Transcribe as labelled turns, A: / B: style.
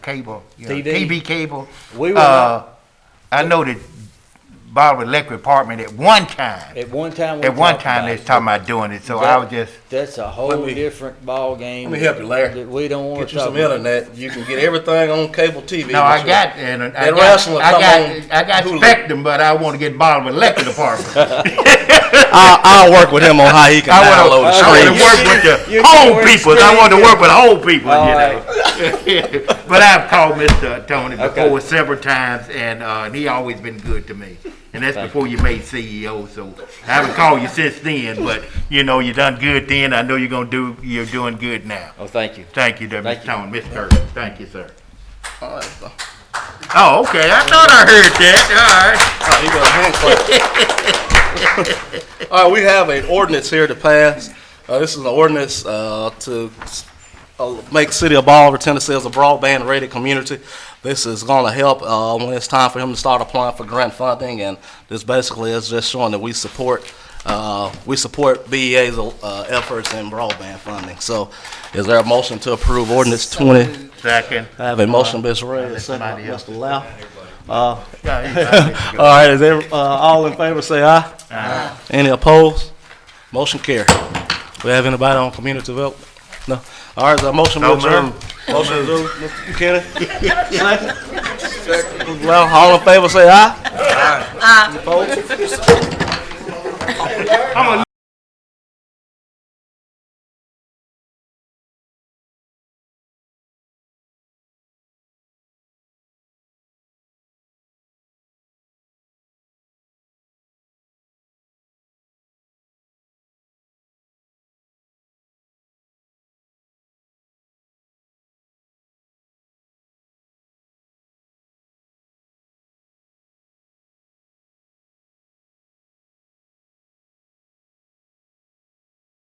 A: cable, you know,
B: TV.
A: TV cable.
B: We were
A: Uh, I know that Bolivar Electric Department at one time,
B: At one time. we
A: at one
B: talked
A: time,
B: about
A: they
B: it.
A: was talking about doing it, so I was just,
B: That's a whole
C: Let me-
B: different ballgame.
C: Let me help you, Larry.
B: That we don't wanna
C: Get you
B: talk
C: some
B: about.
C: internet. You can get everything on cable TV.
A: no, I got, and I
C: That
A: got,
C: wrestling
A: I
C: come
A: got,
C: on
A: I got
C: Hulu.
A: Spectrum, but I wanna get Bolivar Electric Department.
D: I'll, I'll work with him on how he can
A: I
D: download
A: wanna,
D: the
A: I
D: screen.
A: wanna
B: screens.
A: work with
B: You- you
A: the
B: can
A: whole
B: work
A: people, I wanna
B: screens.
A: work with whole people,
B: All
A: you know? But I've called Mr. Tony
B: Okay.
A: before several times, and, uh, and he always been good to me. And that's before you made CEO, so I haven't called you since then, but, you know, you done good then, I know you're gonna do, you're doing good now.
B: Oh, thank you.
A: Thank you, there,
B: Thank
A: Mr.
B: you.
A: Tony, Mr. Kirk, thank you, sir. Oh, okay, I thought I heard that,
C: You got a hand clap. All right, we have an ordinance here to pass. Uh, this is an ordinance, uh, to, uh, make City of Bolivar, Tennessee as a broadband rated community. This is gonna help, uh, when it's time for him to start applying for grant funding, and this basically is just showing that we support, uh, we support BEA's, uh, efforts in broadband funding. So is there a motion to approve ordinance twenty?
A: all right. Second.
C: I have a motion, Ms. Ray, a second,
A: somebody
C: by
A: else
C: Mr. Lau.
A: Yeah, he's-
C: All right, is every, uh, all in favor, say aye. Aye. Any opposed? Motion carry. We have anybody on community development? No. All right, is there a motion to
A: No,
C: adjourn?
A: ma'am.
C: Motion to adjourn, Mr. Buchanan? Second. Well, all in favor, say aye.